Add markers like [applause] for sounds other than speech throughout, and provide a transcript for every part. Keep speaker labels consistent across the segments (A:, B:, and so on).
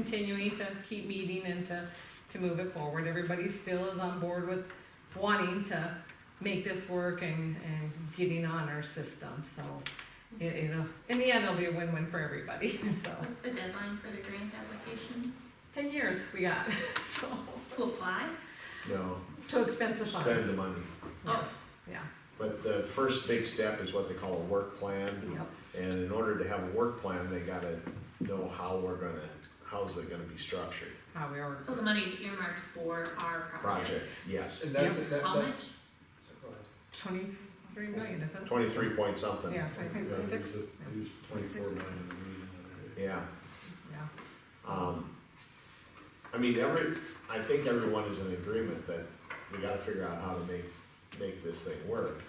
A: continuing to keep meeting and to, to move it forward. Everybody still is on board with wanting to make this work and, and getting on our system, so. It, you know, in the end, it'll be a win-win for everybody, [laughs] so.
B: What's the deadline for the grant application
A: Ten years we got, [laughs] so,
B: to apply?
C: No,
A: to expensive
C: spend the
A: funds.
C: money.
A: Yes, yeah,
C: But the first big step is what they call a work plan.
A: yep,
C: And in order to have a work plan, they gotta know how we're gonna, how's it gonna be structured.
A: how we are.
B: So the money's earmarked for our project.
C: Project, yes.
D: And that's, that, that.
B: How much?
D: so go ahead.
A: Twenty-three million, is it?
C: Twenty-three point something.
A: Yeah, I think it's six,
E: Use
A: Six.
E: twenty-four million in the meeting.
C: Yeah.
A: yeah. So,
C: Um, I mean, every, I think everyone is in agreement that we gotta figure out how to make, make this thing work.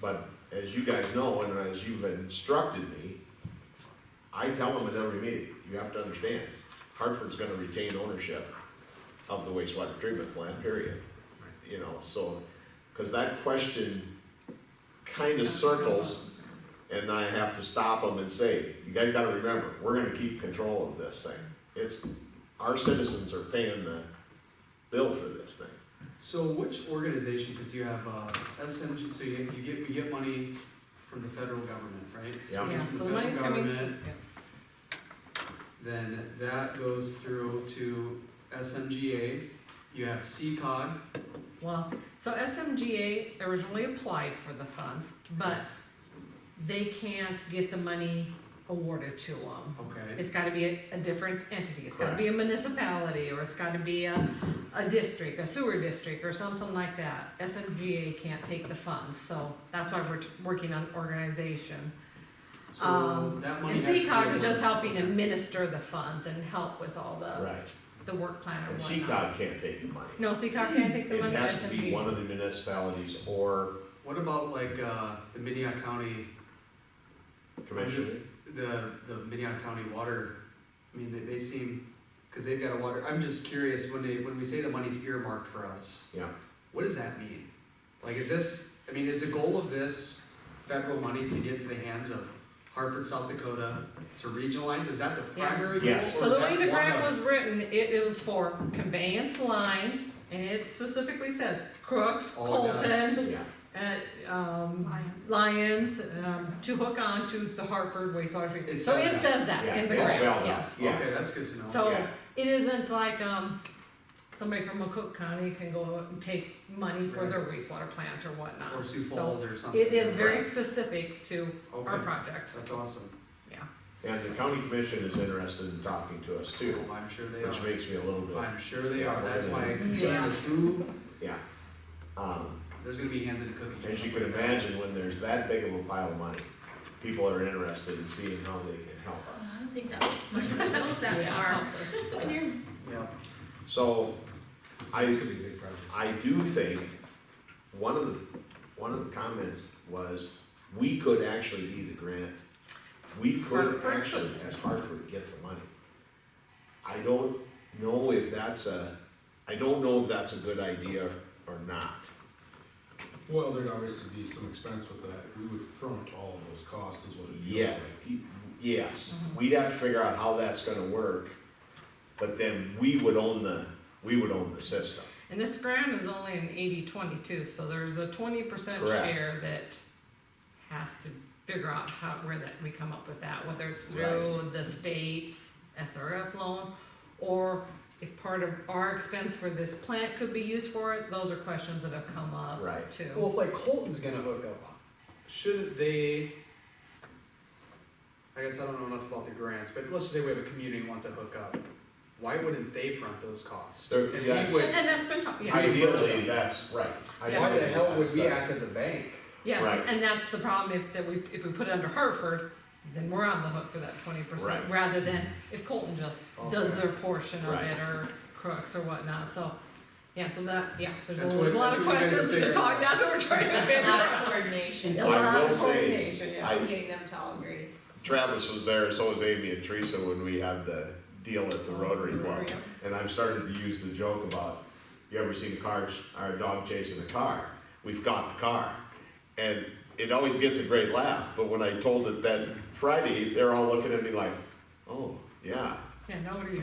C: But as you guys know, and as you've instructed me, I tell them at every meeting, you have to understand, Hartford's gonna retain ownership of the wastewater treatment plant, period. You know, so, cause that question kinda circles and I have to stop them and say, you guys gotta remember, we're gonna keep control of this thing. It's, our citizens are paying the bill for this thing.
D: So which organization, because you have, uh, SMG, so you, you get, you get money from the federal government, right? So
C: Yeah.
A: Yeah,
D: it's from
A: so
D: the
A: the money's
D: federal
A: coming,
D: government,
A: yeah,
D: Then that goes through to SMGA, you have CCOG,
A: well, so SMGA originally applied for the funds, but they can't get the money awarded to them.
D: okay,
A: It's gotta be a, a different entity, it's gotta be a municipality, or it's gotta be a, a district, a sewer district, or something like that. SMGA can't take the funds, so that's why we're t- working on organization.
D: so
A: Um,
D: that money
A: And
D: has to be.
A: CCOG is just
D: awarded.
A: helping administer the funds and help with all the,
C: Right.
A: the work plan
C: And
A: and whatnot.
C: CCOG can't take the money.
A: No, CCOG can't take the
C: It
A: money,
C: has to be one
A: SMGA.
C: of the municipalities or
D: What about like, uh, the Minnehaha County, I'm
C: commission.
D: just, the, the Minnehaha County Water, I mean, they, they seem, cause they've got a water, I'm just curious, when they, when we say the money's earmarked for us.
C: Yeah.
D: What does that mean? Like, is this, I mean, is the goal of this federal money to get to the hands of Hartford, South Dakota, to regionalize, is that the
A: Yes.
D: primary goal?
C: Yes.
D: or
A: So
D: is
A: the way
D: that
A: the
D: one
A: grant
D: of-
A: was written, it, it was for conveyance lines, and it specifically said Crooks,
D: All it does.
A: Colton,
C: Yeah,
A: at, um, Lions, um, to hook on to the Hartford wastewater
D: It
A: treatment. So it
D: says that.
A: says that
C: yeah,
A: in the
C: it's
A: grant,
C: spelled out,
A: yes.
C: Yeah,
D: Okay, that's good to know.
A: So
C: Yeah.
A: it isn't like, um, somebody from McCook County can go out and take money for their wastewater plant or whatnot.
D: Or Sioux
A: So
D: Falls or something.
A: It is very
D: Right.
A: specific to our
D: Okay,
A: project,
D: that's awesome,
C: and the county commission is interested in talking to us too,
D: I'm sure they
C: which
D: are,
C: makes me a little bit,
D: I'm sure they are, that's my
C: Yeah.
D: concern is who,
C: yeah. Um,
D: there's gonna be hands in the cookie. jar.
C: as you can imagine, when there's that big of a pile of money, people are interested in seeing how they can help
B: Well,
C: us.
B: I don't think that money goes that
A: yeah.
B: far. When [laughs] you're
D: Yeah,
C: So, I,
E: It's gonna be a big project.
C: I do think, one of the, one of the comments was, we could actually be the grant, we could
A: Hartford.
C: actually, as Hartford, get the money. I don't know if that's a, I don't know if that's a good idea or not.
E: Well, there'd obviously be some expense with that, we would front all of those costs is what it feels
C: Yeah,
E: like.
C: yes,
A: Mm-hmm.
C: we'd have to figure out how that's gonna work, but then we would own the, we would own the system.
A: And this grant is only an eighty-twenty too, so there's a twenty percent
C: Correct.
A: share that has to figure out how, where that, we come up with that, whether it's
C: Right.
A: through the state's SRF loan, or if part of our expense for this plant could be used for it, those are questions that have come up
C: Right.
A: too.
D: Well, if like Colton's gonna hook up, shouldn't they? I guess I don't know enough about the grants, but let's just say we have a community wants to hook up. Why wouldn't they front those costs?
C: There-
D: And we
C: yes.
A: And
D: would-
A: and that's been talked, yeah,
D: I-
C: Ideally, that's right.
A: Yeah.
D: Why the
C: Ideally,
D: hell would
C: that's
D: we
C: the-
D: act as a bank?
A: yes,
C: Right.
A: and that's the problem, if, that we, if we put it under Hartford, then we're on the hook for that twenty percent,
C: Right.
A: rather than if Colton just does
D: Okay.
A: their portion of
C: Right.
A: it, or Crooks or whatnot, so, yeah, so that, yeah, there's a,
D: That's
A: there's a
D: what-
A: lot of
D: that's what you guys
A: questions to
D: have
A: talk,
D: figured out.
A: that's what we're trying
B: [laughs]
A: to
B: a
A: figure
B: lot of
A: out.
B: coordination,
A: A
C: I
A: lot of
C: will say,
A: coordination, yeah.
C: I,
B: getting them to all agree.
C: Travis was there, so was Amy and Teresa when we had the deal at the Rotary Club.
B: Rotary.
C: And I've started to use the joke about, you ever seen cars, or a dog chasing a car? We've got the car. And it always gets a great laugh, but when I told it that Friday, they're all looking at me like, oh, yeah,
A: Yeah, nobody's